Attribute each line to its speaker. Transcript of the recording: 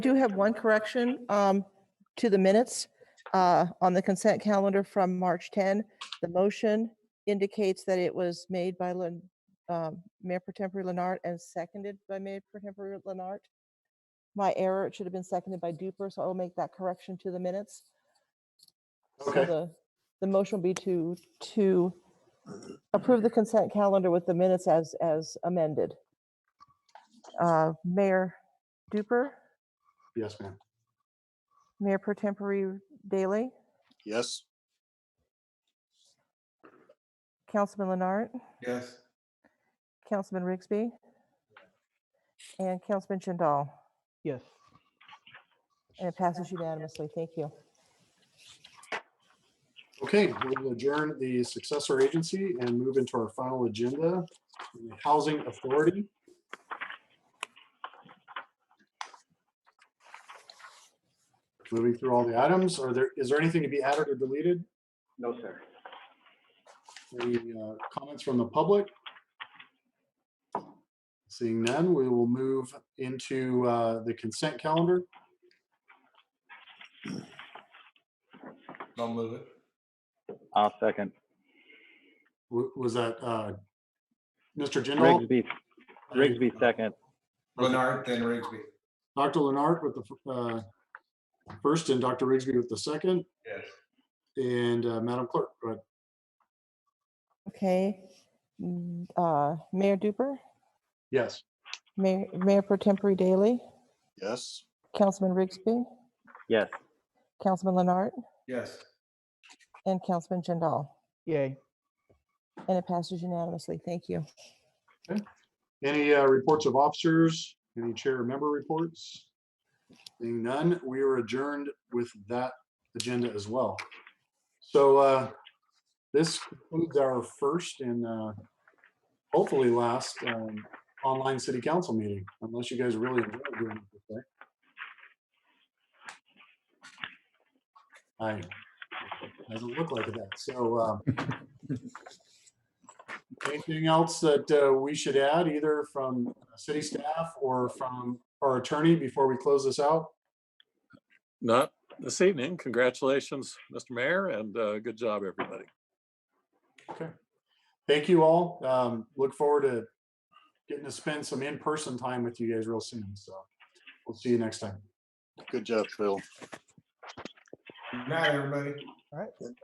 Speaker 1: do have one correction um, to the minutes. uh, On the consent calendar from March 10, the motion indicates that it was made by Lin- um, Mayor Pro Tempore Leonard and seconded by Mayor Pro Tempore Leonard. My error, it should have been seconded by Duper, so I'll make that correction to the minutes. So
Speaker 2: Okay.
Speaker 1: the- The motion will be to, to approve the consent calendar with the minutes as, as amended. Uh, Mayor Duper?
Speaker 2: Yes, ma'am.
Speaker 1: Mayor Pro Tempore Daley,
Speaker 2: Yes.
Speaker 1: Councilman Leonard,
Speaker 2: Yes.
Speaker 1: Councilman Rigsby, and Councilman Jindal.
Speaker 3: Yes.
Speaker 1: And it passes unanimously. Thank you.
Speaker 2: Okay, we'll adjourn the successor agency and move into our final agenda, the Housing Authority. Moving through all the items, are there, is there anything to be added or deleted?
Speaker 3: No, sir.
Speaker 2: Any uh, comments from the public? Seeing none, we will move into uh, the consent calendar.
Speaker 4: I'll move it.
Speaker 5: I'll second.
Speaker 2: Wa- Was that uh, Mr. Jindal?
Speaker 5: Rigsby, Rigsby second.
Speaker 4: Leonard, then Rigsby.
Speaker 2: Dr. Leonard with the f- uh, first and Dr. Rigsby with the second.
Speaker 4: Yes.
Speaker 2: And uh, Madam Clerk, go ahead.
Speaker 1: Okay. mm, uh, Mayor Duper,
Speaker 2: Yes.
Speaker 1: Mayor, Mayor Pro Tempore Daley,
Speaker 2: Yes.
Speaker 1: Councilman Rigsby,
Speaker 5: Yes,
Speaker 1: Councilman Leonard,
Speaker 4: Yes.
Speaker 1: and Councilman Jindal.
Speaker 3: Yay.
Speaker 1: And it passes unanimously. Thank you.
Speaker 2: Any uh, reports of officers? Any chair or member reports? Seeing none, we are adjourned with that agenda as well. So uh, this concludes our first and uh, hopefully last um, online city council meeting, unless you guys really enjoy doing it this way. I, doesn't look like that. So uh, Anything else that uh, we should add, either from uh, city staff or from our attorney before we close this out?
Speaker 6: Not this evening. Congratulations, Mr. Mayor, and uh, good job, everybody.
Speaker 2: Thank you all. Um, Look forward to getting to spend some in-person time with you guys real soon. So we'll see you next time.
Speaker 7: Good job, Phil.
Speaker 4: Good night, everybody.